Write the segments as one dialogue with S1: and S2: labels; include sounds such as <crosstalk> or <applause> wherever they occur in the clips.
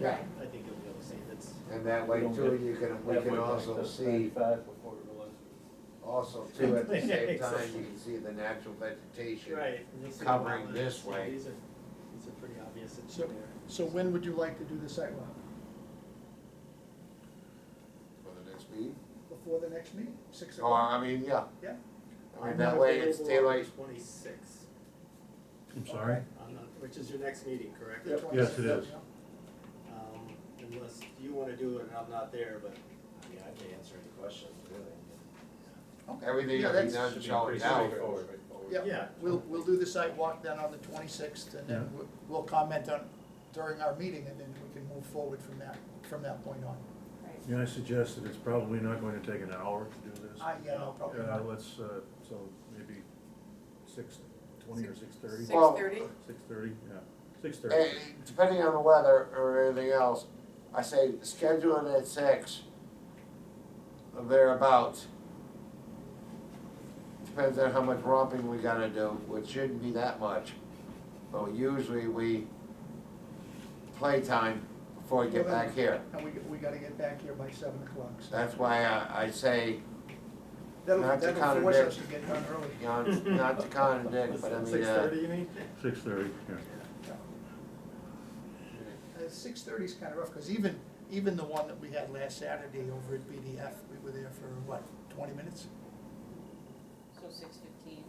S1: Yeah.
S2: I think you'll be able to see that's,
S1: And that way
S3: We don't
S1: too,
S3: get
S1: you can, we
S3: That
S1: can
S3: went like
S1: also
S3: this,
S1: see,
S3: 95 before it was. <laughs>
S1: also too, at the same time,
S2: Exactly.
S1: you can see the natural vegetation.
S2: right. and you'll see the
S1: Covering
S2: wetlands.
S1: this
S2: Yeah,
S1: way.
S2: These are, these are pretty obvious that
S4: So-
S2: you're there.
S4: So when would you like to do the sidewalk?
S1: For the next meeting?
S4: Before the next meeting, six
S1: Oh,
S4: o'clock?
S1: I mean, yeah.
S4: Yeah.
S1: I mean,
S2: I'm
S1: that
S2: not
S1: way it's
S2: available on the
S1: daylight,
S2: Twenty-six,
S5: I'm sorry?
S2: I'm not- which is your next meeting, correct?
S4: The 26th,
S5: Yes, it is.
S4: yeah.
S2: Um, unless you wanna do it and I'm not there, but. I mean, I have to answer any questions, really.
S4: Okay.
S1: everything
S4: Yeah,
S1: will be
S4: that's-
S1: done showing now.
S4: Yeah, we'll, we'll do the sidewalk then on the twenty-sixth, and then we'll- we'll comment on during our meeting, and then we can move forward from that, from that point on.
S5: May I suggest that it's probably not going to take an hour to do this?
S4: I, yeah, no problem.
S5: Uh, let's, uh, so maybe six twenty or six thirty?
S6: Six
S1: Well-
S6: thirty?
S5: Six thirty, yeah, six
S1: Eh,
S5: thirty.
S1: depending on the weather or anything else, I say schedule it at six, or thereabouts. Depends on how much romping we gotta do, which shouldn't be that much, but usually we play time before we get back here.
S4: And we, we gotta get back here by seven o'clock, so.
S1: That's why I, I say,
S4: That'll,
S1: not to
S4: that'll force
S1: contradict.
S4: us to get done early.
S1: you know, not to contradict, but I mean,
S2: Six
S1: uh,
S2: thirty, you mean?
S5: Six thirty, yeah.
S4: Six thirty's kind of rough, because even, even the one that we had last Saturday over at BDF, we were there for, what, twenty minutes?
S6: So six fifteen.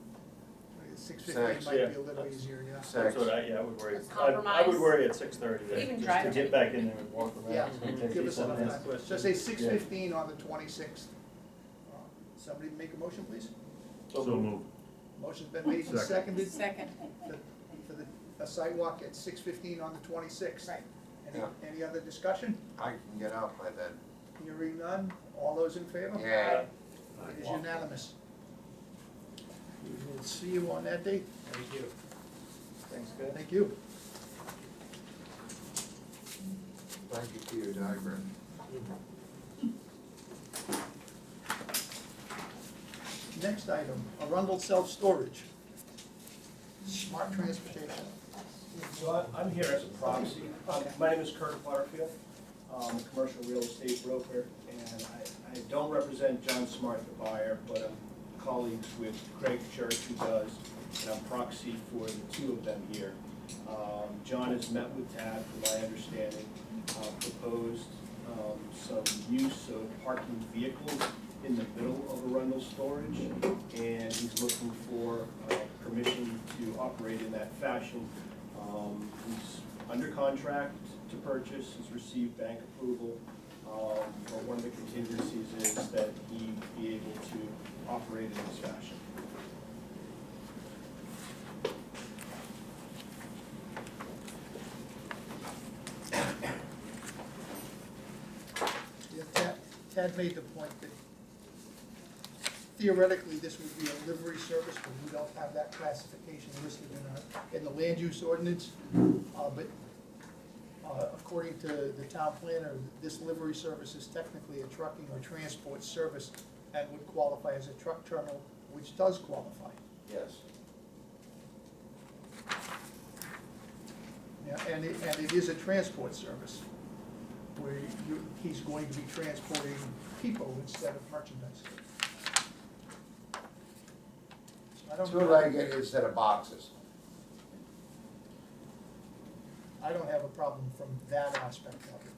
S4: Six fifteen
S1: Six,
S4: might be
S3: yeah.
S4: a little easier, yeah.
S1: six.
S3: That's what I, yeah, I would worry.
S6: Let's
S3: I- I
S6: compromise.
S3: would worry at six thirty,
S6: Even
S3: just to
S6: drive
S3: get
S6: it.
S3: back in there and walk around.
S4: Yeah,
S3: It's gonna take
S4: give
S3: you
S4: us
S3: some
S4: enough
S3: minutes.
S4: time. So say six
S3: Yeah.
S4: fifteen on the twenty-sixth. Uh, Somebody make a motion, please?
S5: So move.
S4: Motion's been made and
S5: Second.
S4: seconded
S6: Second.
S4: for the, a sidewalk at six fifteen on the twenty-sixth.
S6: Right.
S4: Any,
S1: Yeah.
S4: any other discussion?
S1: I can get out by then,
S4: Hearing none, all those in favor?
S1: yeah.
S4: It is unanimous. We will see you on that date.
S2: Thank you.
S3: Thanks, guys.
S4: Thank you.
S1: Thank you for your diagram.
S4: Next item, Arundel Self-Storage. Smart transportation.
S7: So I- I'm here as a proxy. Um, My name is Kurt Butterfield. I'm a commercial real estate broker, and I, I don't represent John Smart, the buyer, but I'm colleagues with Craig Church, who does, and I'm proxy for the two of them here. Um, John has met with Tad, from my understanding, uh, proposed um, some use of parking vehicles in the middle of Arundel storage, and he's looking for uh, permission to operate in that fashion. Um, He's under contract to purchase, he's received bank approval, um, but one of the contingencies is that he be able to operate in this fashion.
S4: Yeah, Tad- Tad made the point that theoretically, this would be a livery service, but we don't have that classification listed in our, in the land use ordinance. Uh, but, uh, according to the town planner, this livery service is technically a trucking or transport service and would qualify as a truck terminal, which does qualify.
S1: Yes.
S4: Yeah, and it, and it is a transport service, where you, he's going to be transporting people instead of merchandise. I don't,
S1: Two-legged instead of boxes.
S4: I don't have a problem from that aspect of it,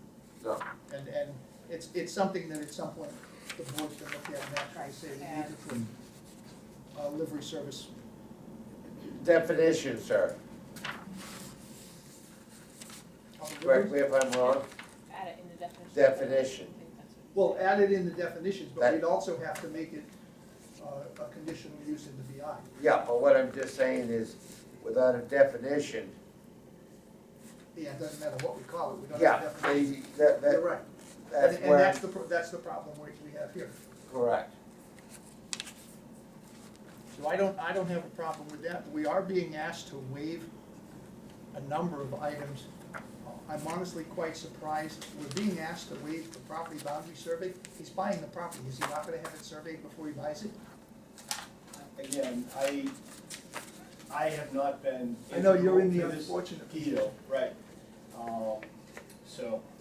S1: No,
S4: and, and it's, it's something that at some point the board can look at and actually say, we need to put a livery service.
S1: definition, sir,
S4: on the
S1: correct
S4: livery.
S1: me if I'm wrong,
S6: Add it in the definition.
S1: Definition.
S6: I think that's what-
S4: Well, add it in the definitions, but
S1: That-
S4: we'd also have to make it, uh, a conditional use in the BI.
S1: yeah, but what I'm just saying is, without a definition,
S4: Yeah, it doesn't matter what we call it, we don't
S1: yeah,
S4: have a definition.
S1: they, that,
S4: You're
S1: that,
S4: right. And,
S1: that's
S4: and
S1: where,
S4: that's the, pro- that's the problem we, we have here.
S1: correct.
S4: So I don't, I don't have a problem with that. We are being asked to waive a number of items. I'm honestly quite surprised. We're being asked to waive the property boundary survey. He's buying the property. Is he not gonna have it surveyed before he buys it?
S7: Again, I, I have not been.
S4: I know you're in the
S7: integral to this
S4: unfortunate
S7: Deal, right. Um, So